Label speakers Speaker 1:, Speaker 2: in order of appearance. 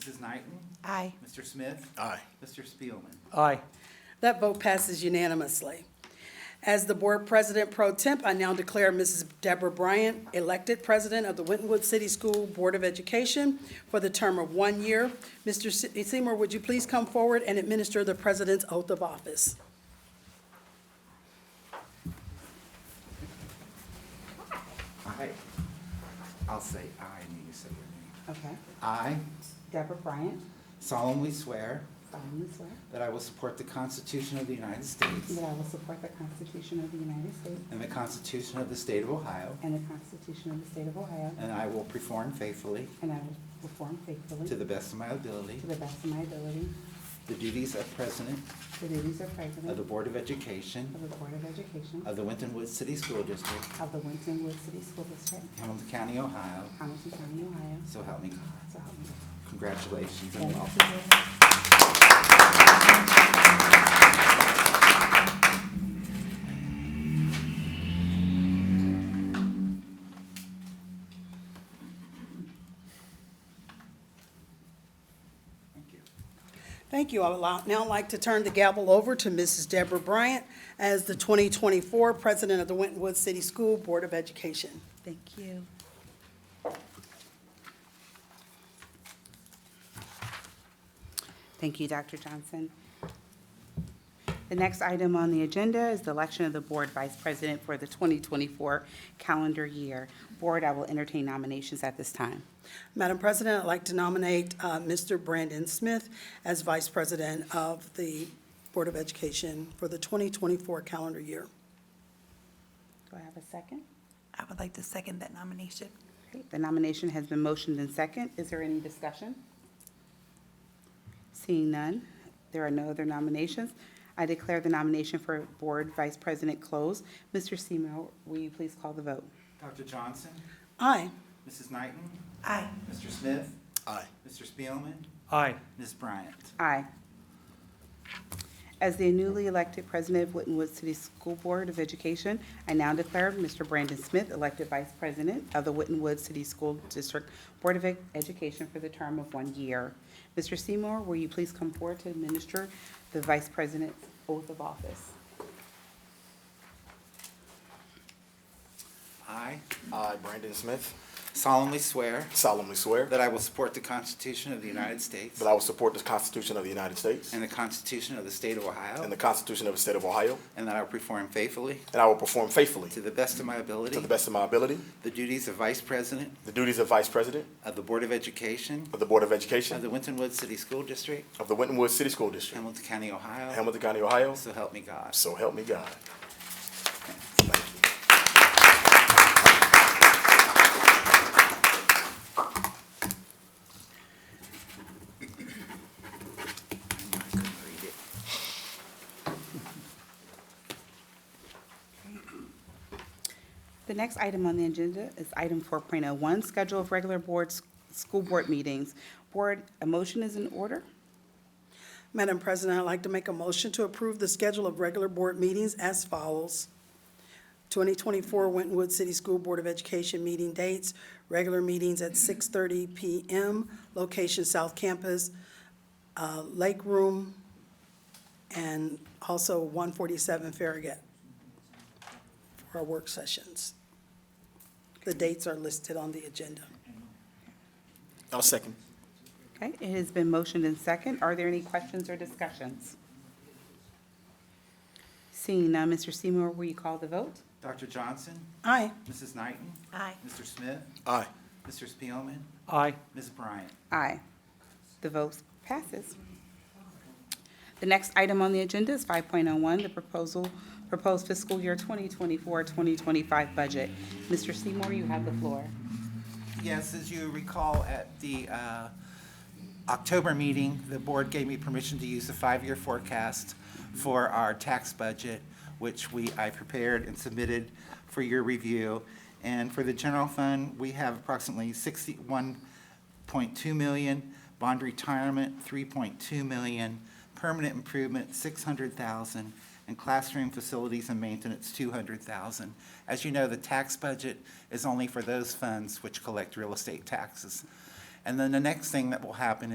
Speaker 1: Mrs. Knighton,
Speaker 2: Aye.
Speaker 1: Mr. Smith,
Speaker 3: Aye.
Speaker 1: Mr. Spielman.
Speaker 4: Aye.
Speaker 5: That vote passes unanimously. As the Board President Pro Temp, I now declare Mrs. Deborah Bryant elected President of the Wintonwood City School Board of Education for the term of one year. Mr. Se- Seymour, would you please come forward and administer the President's oath of office?
Speaker 1: Aye. I'll say aye and you say your name.
Speaker 2: Okay.
Speaker 1: I
Speaker 2: Deborah Bryant,
Speaker 1: solemnly swear
Speaker 2: solemnly swear
Speaker 1: that I will support the Constitution of the United States
Speaker 2: that I will support the Constitution of the United States
Speaker 1: and the Constitution of the State of Ohio,
Speaker 2: and the Constitution of the State of Ohio,
Speaker 1: and I will perform faithfully,
Speaker 2: and I will perform faithfully,
Speaker 1: to the best of my ability,
Speaker 2: to the best of my ability,
Speaker 1: the duties of President
Speaker 2: the duties of
Speaker 1: of
Speaker 2: President
Speaker 1: the
Speaker 2: of
Speaker 1: Board of Education
Speaker 2: the Board of Education
Speaker 1: of the Winton Woods City School District,
Speaker 2: of the Wintonwood City School District,
Speaker 1: Hamilton County, Ohio,
Speaker 2: Hamilton County, Ohio.
Speaker 1: so help me God.
Speaker 2: So help me God.
Speaker 1: Congratulations and
Speaker 2: Thank
Speaker 1: welcome.
Speaker 2: you.
Speaker 1: Thank you.
Speaker 5: Thank you. I would li- now like to turn the gavel over to Mrs. Deborah Bryant as the 2024 President of the Wintonwood City School Board of Education.
Speaker 2: Thank you. Thank you, Dr. Johnson. The next item on the agenda is the election of the Board Vice President for the 2024 calendar year. Board, I will entertain nominations at this time.
Speaker 5: Madam President, I'd like to nominate uh, Mr. Brandon Smith as Vice President of the Board of Education for the 2024 calendar year.
Speaker 2: Do I have a second?
Speaker 6: I would like to second that nomination.
Speaker 2: Okay, The nomination has been motioned and second. Is there any discussion? Seeing none, there are no other nominations. I declare the nomination for Board Vice President closed. Mr. Seymour, will you please call the vote?
Speaker 1: Dr. Johnson,
Speaker 5: Aye.
Speaker 1: Mrs. Knighton,
Speaker 6: Aye.
Speaker 1: Mr. Smith,
Speaker 3: Aye.
Speaker 1: Mr. Spielman,
Speaker 4: Aye.
Speaker 1: Ms. Bryant.
Speaker 2: Aye. As the newly elected President of Wittenwood City School Board of Education, I now declare Mr. Brandon Smith elected Vice President of the Wittenwood City School District Board of E-, Education for the term of one year. Mr. Seymour, will you please come forward to administer the Vice President's oath of office?
Speaker 1: I
Speaker 3: I, Brandon Smith,
Speaker 1: solemnly swear
Speaker 3: solemnly swear
Speaker 1: that I will support the Constitution of the United States
Speaker 3: that I will support the Constitution of the United States
Speaker 1: and the Constitution of the State of Ohio,
Speaker 3: and the Constitution of the State of Ohio,
Speaker 1: and that I will perform faithfully,
Speaker 3: and I will perform faithfully,
Speaker 1: to the best of my ability,
Speaker 3: to the best of my ability,
Speaker 1: the duties of Vice President
Speaker 3: the duties of Vice President
Speaker 1: of the Board of Education
Speaker 3: of the Board of
Speaker 1: of
Speaker 3: Education
Speaker 1: the Winton Woods City School District,
Speaker 3: of the Winton Woods City School District,
Speaker 1: Hamilton County, Ohio.
Speaker 3: Hamilton County, Ohio.
Speaker 1: So help me God.
Speaker 3: So help me God.
Speaker 1: I couldn't read it.
Speaker 2: The next item on the agenda is item 4.01, Schedule of Regular Boards, School Board Meetings. Board, a motion is in order?
Speaker 5: Madam President, I'd like to make a motion to approve the schedule of regular board meetings as follows. 2024 Wintonwood City School Board of Education meeting dates, regular meetings at 6:30 PM, location South Campus, uh, Lake Room, and also 147 Farragut for our work sessions. The dates are listed on the agenda.
Speaker 3: I'll second.
Speaker 2: Okay, it has been motioned and second. Are there any questions or discussions? Seeing none, Mr. Seymour, will you call the vote?
Speaker 1: Dr. Johnson,
Speaker 5: Aye.
Speaker 1: Mrs. Knighton,
Speaker 6: Aye.
Speaker 1: Mr. Smith,
Speaker 3: Aye.
Speaker 1: Mr. Spielman,
Speaker 4: Aye.
Speaker 1: Ms. Bryant.
Speaker 2: Aye. The vote passes. The next item on the agenda is 5.01, the proposal, proposed fiscal year 2024-2025 budget. Mr. Seymour, you have the floor.
Speaker 1: Yes, as you recall, at the uh, October meeting, the board gave me permission to use the five-year forecast for our tax budget, which we, I prepared and submitted for your review. And for the general fund, we have approximately sixty-one point two million, bond retirement, three point two million, permanent improvement, six hundred thousand, and classroom facilities and maintenance, two hundred thousand. As you know, the tax budget is only for those funds which collect real estate taxes. And then the next thing that will happen is.